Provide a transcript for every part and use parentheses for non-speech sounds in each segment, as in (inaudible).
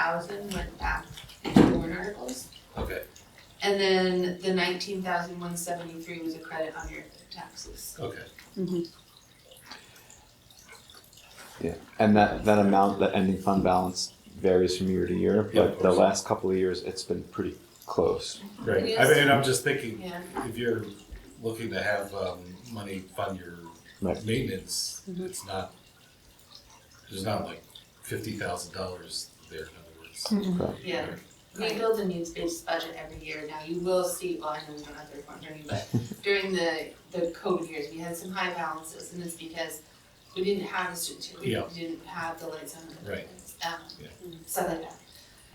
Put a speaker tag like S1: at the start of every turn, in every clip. S1: thousand went back into warrant articles.
S2: Okay,
S1: And then the nineteen thousand one seventy-three was a credit on your taxes.
S2: okay.
S3: And that, that amount, that ending fund balance varies from year to year,
S2: Yeah, of
S3: but the
S2: course.
S3: last couple of years, it's been pretty close.
S2: Right, I
S1: Yes.
S2: mean, and I'm just thinking,
S1: Yeah,
S2: if you're looking to have, um, money fund your
S3: Right.
S2: maintenance, it's not, there's not like fifty thousand dollars there, in other words.
S1: yeah. We build a needs-based budget every year. Now, you will see, well, I know we don't have the report during, but
S2: (laughs)
S1: during the, the COVID years, we had some high balances and it's because we didn't have the certificate,
S2: Yeah.
S1: we didn't have the lights on. the
S2: Right.
S1: buildings, Um, stuff like that.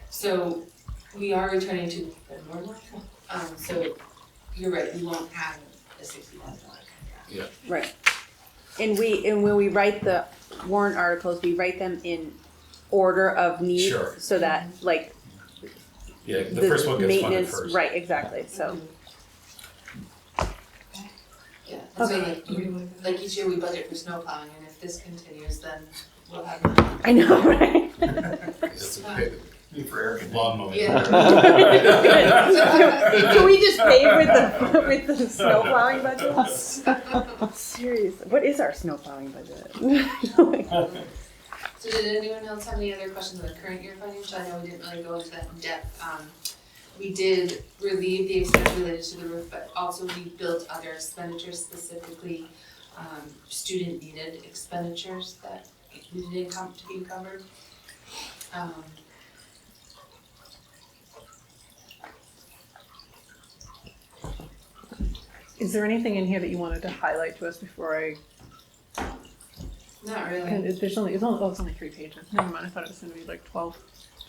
S1: So we are returning to the normal, um, so you're right, we won't have a sixty thousand dollar contract.
S4: Right. And we, and when we write the warrant articles, we write them in order of need.
S2: Sure.
S4: So that like
S2: Yeah, the
S4: the
S2: first one gets funded
S4: maintenance,
S2: first.
S4: right, exactly, so.
S1: Yeah, and so like, like each year we budget for snow plowing and if this continues, then we'll have. none.
S4: I know, (laughs) right?
S2: That's okay.
S5: for air conditioning.
S2: Lawn mowing. (laughs)
S1: Yeah.
S4: Good. (laughs) Can we just pay with the, with the snow plowing budget? Serious, what is our snow plowing budget? (laughs)
S1: So did anyone else have any other questions on the current year financial? I know we didn't really go into that in depth. Um, we did relieve the expense related to the roof, but also we built other expenditures specifically, um, student needed expenditures that needed to come, to be covered. Um,
S6: Is there anything in here that you wanted to highlight to us before I,
S1: not really.
S6: and there's only, it's only, oh, it's only three pages, never mind, I thought it was gonna be like twelve,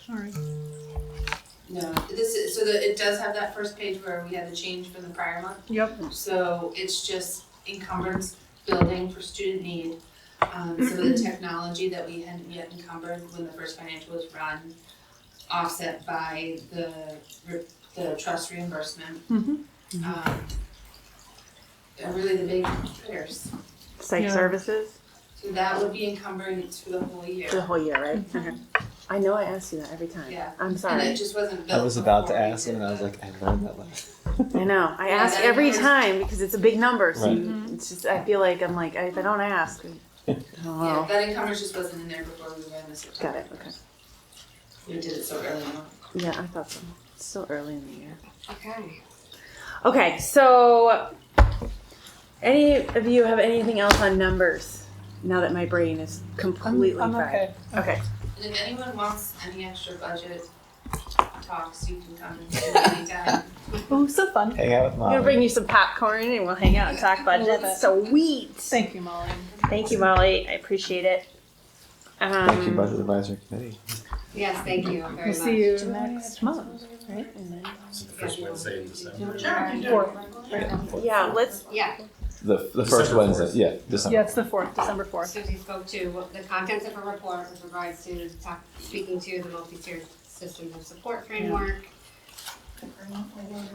S6: sorry.
S1: No, this is, so the, it does have that first page where we had the change from the prior month.
S6: Yep.
S1: So it's just encumbrance building for student need. Um, some
S4: (clears throat)
S1: of the technology that we hadn't yet encumbered when the first financial was run, offset by the, re- the trust reimbursement.
S4: Mm-hmm.
S6: Mhm.
S1: Um, They're really the big hitters.
S4: Psych
S6: Yeah.
S4: services,
S1: So that would be encumbrance for the whole year.
S4: the whole year, right? Okay. I know I ask you that every time.
S1: Yeah.
S4: I'm
S1: And
S4: sorry.
S1: it just wasn't built
S3: I was about to
S1: before we
S3: ask, and
S1: did
S3: I was
S1: the-
S3: like, I learned that last.
S4: I know. I
S1: Yeah,
S4: ask
S1: that
S4: every
S1: numbers-
S4: time because it's a big number. So
S3: Right.
S4: you, it's just I feel like I'm like if I don't ask,
S3: (laughs)
S4: I don't
S1: Yeah,
S4: know.
S1: that encumbrance just wasn't in there before we ran this.
S4: Oh. Got it. Okay.
S1: We did it so early on.
S4: Yeah, I thought so. It's still early in the year.
S1: Okay.
S4: Okay. So, any of you have anything else on numbers? Now that my brain is completely
S6: I'm
S4: fried.
S6: okay.
S4: Okay.
S1: And if anyone wants any extra budget talks, you can come and do it anytime.
S6: Oh, so fun,
S3: Hang out with
S4: I'm gonna
S3: mom.
S4: bring you some popcorn and we'll hang out and talk about
S6: Love
S4: it.
S6: it.
S4: Sweet.
S6: thank you, Molly.
S4: Thank you, Molly. I appreciate it. Um,
S3: Thank you, Budget Advisory Committee.
S1: Yes, thank you very much.
S6: We'll see you next month, right?
S2: So the first Wednesday in December.
S4: Um, Yeah. Let's.
S7: Yeah,
S3: The, the first
S2: December
S3: Wednesday,
S2: fourth.
S3: yeah, December.
S6: Yeah, it's the fourth, December fourth.
S7: Susie spoke to what the contents of her report with regards to talk, speaking to the multi-tiered systems of support framework,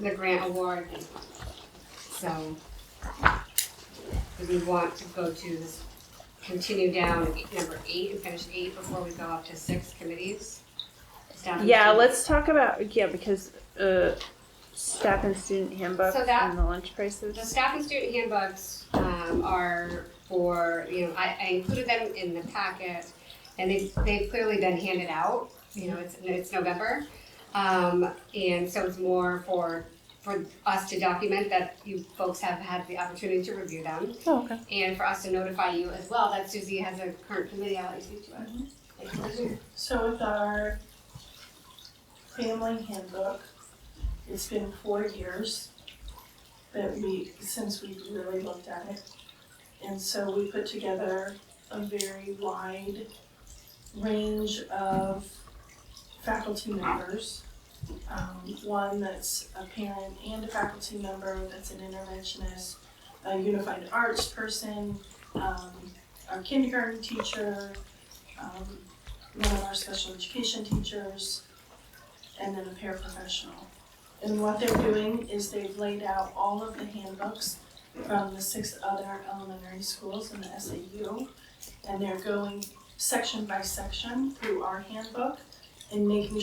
S7: the grant award. So, if we want to go to this, continue down number eight and finish eight before we go up to six committees. Staff and
S4: Yeah.
S7: student-
S4: Let's talk about yeah because uh, staff and student handbook
S7: So that-
S4: and the lunch prices.
S7: The staff and student handbooks um, are for, you know, I, I included them in the packet, and they've, they've clearly been handed out, you know, it's, it's November. Um, and so it's more for, for us to document that you folks have had the opportunity to review them,
S6: Oh, okay.
S7: and for us to notify you as well that Suzie has a current committee out to.
S8: So with our family handbook, it's been four years that we, since we really looked at it. And so we put together a very wide range of faculty members. Um, one that's a parent and a faculty member, that's an interventionist, a unified arts person, um, our kindergarten teacher, um, one of our special education teachers, and then a paraprofessional. And what they're doing is they've laid out all of the handbooks from the six other elementary schools in the SAU, and they're going section by section through our handbook and making